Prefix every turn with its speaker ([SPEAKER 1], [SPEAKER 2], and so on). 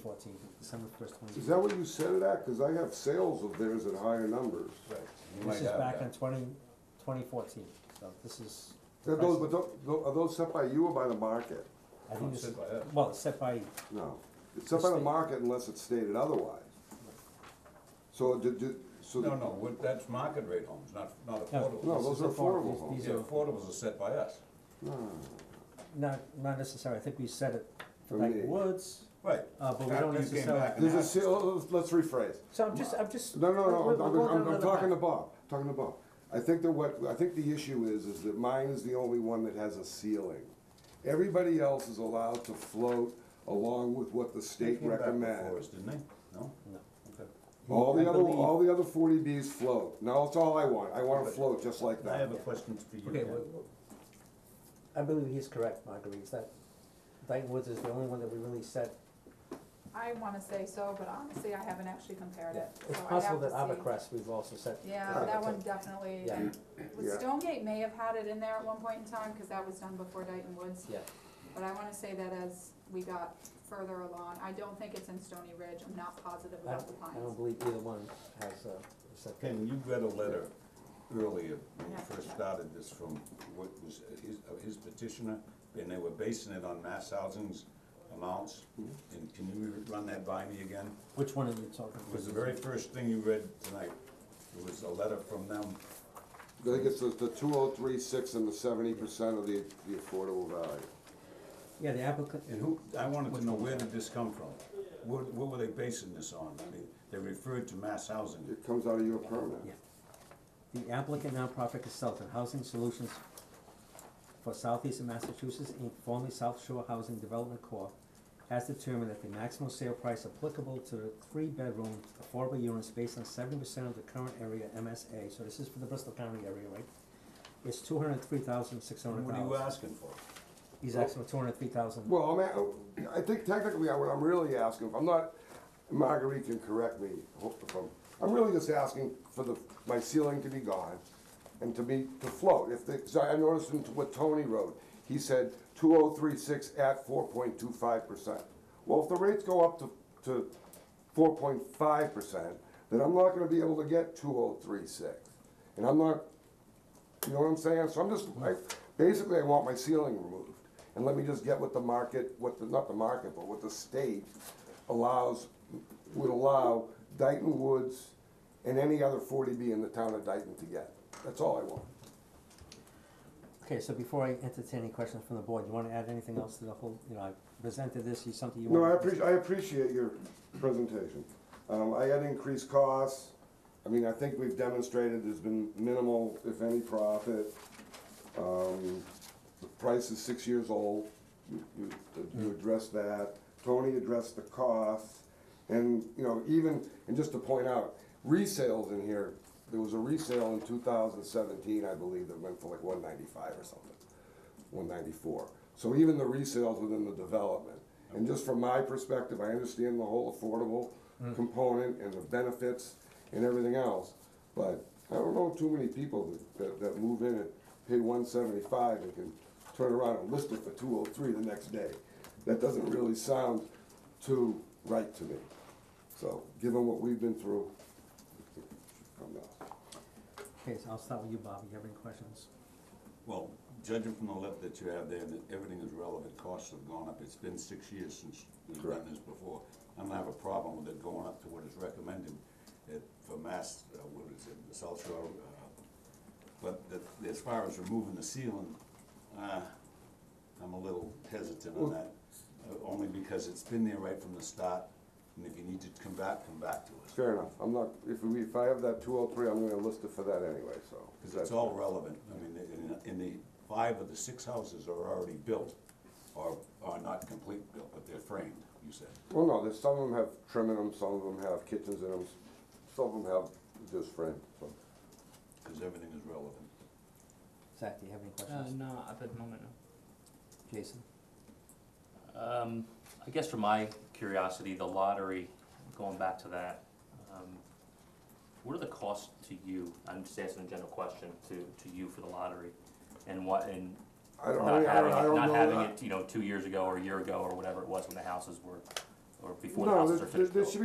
[SPEAKER 1] fourteenth, December first, twenty.
[SPEAKER 2] Is that what you said it at? Cause I have sales of theirs at higher numbers.
[SPEAKER 3] Right. You might
[SPEAKER 1] This is
[SPEAKER 3] have
[SPEAKER 1] back in
[SPEAKER 3] that.
[SPEAKER 1] twenty, twenty fourteen, so this is. the
[SPEAKER 2] Are those,
[SPEAKER 1] price-
[SPEAKER 2] but tho- tho- are those set by you or by the market?
[SPEAKER 1] I think this,
[SPEAKER 3] Set by us.
[SPEAKER 1] well, it's set by,
[SPEAKER 2] No, it's set by the
[SPEAKER 1] State.
[SPEAKER 2] market unless it's stated otherwise. So did, did, so.
[SPEAKER 3] No, no, what- that's market rate homes, not, not affordables.
[SPEAKER 2] No,
[SPEAKER 1] This
[SPEAKER 2] those
[SPEAKER 1] is
[SPEAKER 2] are
[SPEAKER 1] affordable.
[SPEAKER 2] affordable
[SPEAKER 1] These-
[SPEAKER 2] homes.
[SPEAKER 1] these-
[SPEAKER 3] Yeah, affordables are set by us.
[SPEAKER 1] not, not necessarily, I think we set it for
[SPEAKER 2] For
[SPEAKER 1] like
[SPEAKER 2] me.
[SPEAKER 1] woods,
[SPEAKER 3] Right.
[SPEAKER 1] uh, but we
[SPEAKER 3] After
[SPEAKER 1] don't
[SPEAKER 3] you came
[SPEAKER 1] necessarily.
[SPEAKER 3] back and
[SPEAKER 2] There's a
[SPEAKER 3] asked us.
[SPEAKER 2] sale, oh, let's rephrase.
[SPEAKER 1] So I'm just, I'm just.
[SPEAKER 2] No, no,
[SPEAKER 1] we're-
[SPEAKER 2] no,
[SPEAKER 1] we're-
[SPEAKER 2] I'm,
[SPEAKER 1] we're
[SPEAKER 2] I'm-
[SPEAKER 1] going
[SPEAKER 2] I'm,
[SPEAKER 1] down
[SPEAKER 2] I'm
[SPEAKER 1] the
[SPEAKER 2] talking to
[SPEAKER 1] path.
[SPEAKER 2] Bob, talking to Bob. I think that what, I think the issue is, is that mine is the only one that has a ceiling. Everybody else is allowed to float along with what the
[SPEAKER 3] They
[SPEAKER 2] state
[SPEAKER 3] came back before us,
[SPEAKER 2] recommends.
[SPEAKER 3] didn't they? No?
[SPEAKER 1] No.
[SPEAKER 3] Okay.
[SPEAKER 2] All
[SPEAKER 1] I
[SPEAKER 2] the other,
[SPEAKER 1] believe-
[SPEAKER 2] all the other forty Bs float. Now, that's all I want. I wanna
[SPEAKER 3] But-
[SPEAKER 2] float just like
[SPEAKER 3] I
[SPEAKER 2] that.
[SPEAKER 3] have a question for you,
[SPEAKER 1] Okay,
[SPEAKER 3] Ken.
[SPEAKER 1] well, I believe he's correct, Marguerite, that Dyton Woods is the only one that we really set.
[SPEAKER 4] I wanna say so, but honestly, I haven't actually compared it, so
[SPEAKER 1] It's
[SPEAKER 4] I have
[SPEAKER 1] possible
[SPEAKER 4] to
[SPEAKER 1] that
[SPEAKER 4] see.
[SPEAKER 1] Abercrest we've also set.
[SPEAKER 4] Yeah, that one definitely,
[SPEAKER 1] Yeah.
[SPEAKER 4] and
[SPEAKER 2] Yeah.
[SPEAKER 4] with Stonegate may have had it in there at one point in time, cause that was done before Dighton Woods.
[SPEAKER 1] Yeah,
[SPEAKER 4] But I wanna say that as we got further along, I don't think it's in Stony Ridge, I'm not positive
[SPEAKER 1] I,
[SPEAKER 4] about the
[SPEAKER 1] I don't
[SPEAKER 4] pines.
[SPEAKER 1] believe either one has, uh, set that.
[SPEAKER 3] Ken, you read a letter earlier when
[SPEAKER 4] Yeah.
[SPEAKER 3] we first started this from what was his, uh, his petitioner, and they were basing it on mass housing's amounts.
[SPEAKER 1] Mm-hmm.
[SPEAKER 3] And can you run that by me again?
[SPEAKER 1] Which one are you talking
[SPEAKER 3] It
[SPEAKER 1] about?
[SPEAKER 3] was the very first thing you read tonight. It was a letter from them.
[SPEAKER 2] I think it's the, the two oh three six and the seventy percent of the, the affordable value.
[SPEAKER 1] Yeah, the applicant,
[SPEAKER 3] And who, I wanted to know, where did this come from? What, what were they basing this on? I mean, They referred to mass housing.
[SPEAKER 2] It comes out of your permit.
[SPEAKER 1] yeah. The applicant nonprofit consultant, Housing Solutions for Southeastern Massachusetts, Inc., formerly South Shore Housing Development Corp., has determined that the maximum sale price applicable to the three-bedroom affordable units based on seventy percent of the current area MSA, so this is for the Bristol County area, right? Is two hundred and three thousand six hundred
[SPEAKER 3] What are you
[SPEAKER 1] dollars.
[SPEAKER 3] asking for?
[SPEAKER 1] He's asking for two hundred and three thousand.
[SPEAKER 2] Well, I'm, a- I think technically I- what I'm really asking, if I'm not, Marguerite can correct me if I'm, I'm really just asking for the, my ceiling to be gone and to be, to float. If the, 'cause I noticed in what Tony wrote, he said two oh three six at four point two five percent. Well, if the rates go up to, to four point five percent, then I'm not gonna be able to get two oh three six. And I'm not you know what I'm saying? So I'm just, I, basically, I want my ceiling removed, and let me just get what the market, what the, not the market, but what the state allows, would allow Dayton Woods and any other forty B in the town of Dayton to get. That's all I want.
[SPEAKER 1] Okay, so before I entertain any questions from the board, you wanna add anything else to the whole, you know, I presented this, you, something you
[SPEAKER 2] No,
[SPEAKER 1] wanna?
[SPEAKER 2] I appreciate, I appreciate your presentation. Um, I had increased costs, I mean, I think we've demonstrated there's been minimal, if any, profit. Um, the price is six years old, you, you, you
[SPEAKER 1] Mm-hmm.
[SPEAKER 2] addressed that, Tony addressed the costs, and, you know, even, and just to point out, resales in here, there was a resale in two thousand seventeen, I believe, that went for like one ninety-five or something one ninety-four. So even the resales within the development. And just from my perspective, I understand the whole affordable component and the benefits and everything else. But I don't know too many people that- that, that move in and pay one seventy-five and can turn around and list it for two oh three the next day. That doesn't really sound too right to me. So, given what we've been through, I'm not.
[SPEAKER 1] Okay, so I'll start with you, Bob, you have any questions?
[SPEAKER 3] Well, judging from the letter that you have there, that everything is relevant, costs have gone up, it's been six years since we've done
[SPEAKER 2] Correct.
[SPEAKER 3] this before. I don't have a problem with it going up to what is recommended at, for mass, uh, what is it, the South Shore, uh, but the, as far as removing the ceiling, uh, I'm a little hesitant on that, uh, only because it's been there right from the start, and if you need to come back, come back to us.
[SPEAKER 2] Fair enough. I'm not, if we, if I have that two oh three, I'm gonna list it for that anyway, so.
[SPEAKER 3] Because it's all relevant, I mean, in, in the, five of the six houses are already built, or are not complete built, but they're framed, you said.
[SPEAKER 2] Well, no, there's, some of them have trim in them, some of them have kitchens in them, some of them have just frame, so.
[SPEAKER 3] Because everything is relevant.
[SPEAKER 1] Zach, do you have any
[SPEAKER 5] Uh,
[SPEAKER 1] questions?
[SPEAKER 5] no, at the moment, no.
[SPEAKER 1] Jason?
[SPEAKER 6] Um, I guess for my curiosity, the lottery, going back to that, um, what are the costs to you? I'm just asking a general question to, to you for the lottery and what, and
[SPEAKER 2] I don't,
[SPEAKER 6] not
[SPEAKER 2] I don't,
[SPEAKER 6] having
[SPEAKER 2] I
[SPEAKER 6] it,
[SPEAKER 2] don't
[SPEAKER 6] not having
[SPEAKER 2] know,
[SPEAKER 6] it, you know, two years ago or a year ago or whatever it was when the houses were or before the houses
[SPEAKER 2] No, there-
[SPEAKER 6] are
[SPEAKER 2] there,
[SPEAKER 6] finished
[SPEAKER 2] there
[SPEAKER 6] built?
[SPEAKER 2] should